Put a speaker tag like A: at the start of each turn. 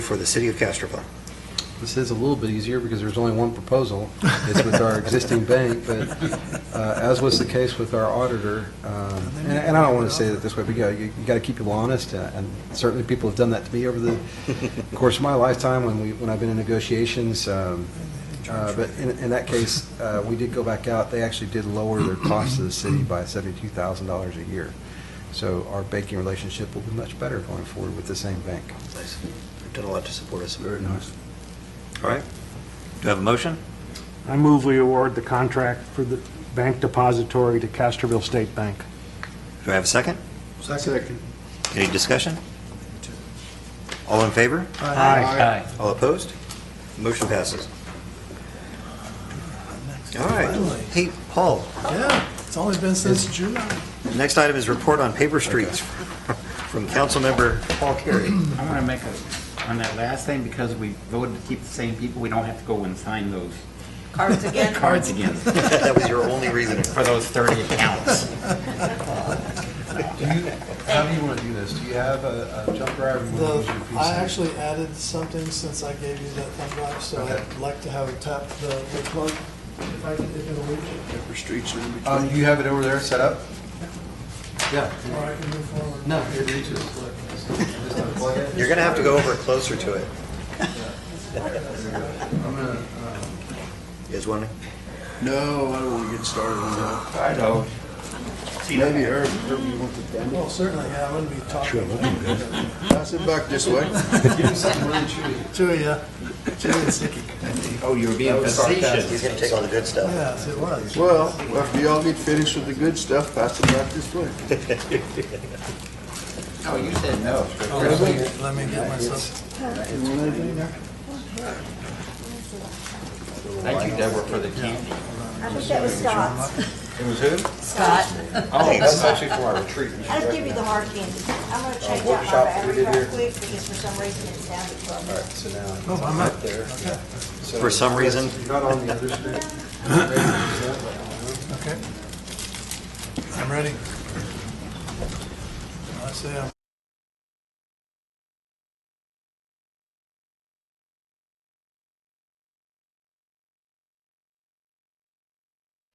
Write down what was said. A: for the city of Castroville.
B: This is a little bit easier because there's only one proposal. It's with our existing bank, but uh, as was the case with our auditor, um, and and I don't want to say it this way, but yeah, you got to keep people honest, uh, and certainly people have done that to me over the course of my lifetime when we, when I've been in negotiations. um, uh, But in in that case, uh, we did go back out. They actually did lower their cost to the city by $72,000 a year. So our banking relationship will be much better going forward with the same bank.
A: Nice. They've done a lot to support us.
B: Very nice.
A: All right.
C: Do you have a motion?
D: I move we award the contract for the bank depository to Castroville State Bank.
C: Do I have a second?
E: Second.
C: Any discussion? All in favor?
D: Aye.
A: All opposed? Motion passes. All right. Hey, Paul,
E: Yeah, it's only been since July.
A: next item is report on paper streets from Councilmember Paul Carey.
F: I want to make a, on that last thing, because we voted to keep the same people, we don't have to go and sign those
G: Cards again?
F: cards again for
A: That was your only reason.
F: those 30 accounts.
B: Do you, how do you want to do this? Do you have a a jump drive? or you wanna use your
E: The,
B: PC?
E: I actually added something since I gave you that thumb drive, so
B: Okay.
E: I'd like to have it tap the, the plug. If I can, if it'll reach it.
B: Um, you have it over there set up? Yeah.
E: Or I can move forward.
B: No, it reaches. Just unplug it.
A: You're going to have to go over closer to it.
B: I'm gonna, uh,
A: You guys want to?
H: No, I don't want to get started on that.
F: I know.
H: Maybe Herb, Herb, you want to bend
E: Well, certainly, yeah, I'm gonna be talking
H: it? Pass it back this way.
B: Give me something really chewy.
E: to you. Chewy and sticky.
F: Oh, you were being
A: He's
F: facetious.
A: going to take all the good stuff.
E: Yes, it was.
H: Well, after y'all get finished with the good stuff, pass it back this way.
F: Oh, you said no.
E: Let me- let me get myself,
H: You want anything there?
F: Thank you, Deborah, for the candy.
G: I think that was Scott's.
F: It was who?
G: Scott.
F: Oh, that's actually for our retreat.
G: I'll give you the hard candy. I'm gonna change out my battery real quick because for some reason it's down to twelve minutes.
B: So now. it's
E: oh, I'm up.
B: up there. So-
A: For some reason.
B: You're Not on the other screen. Maybe it's that way.
E: Okay. I'm ready. I say I'm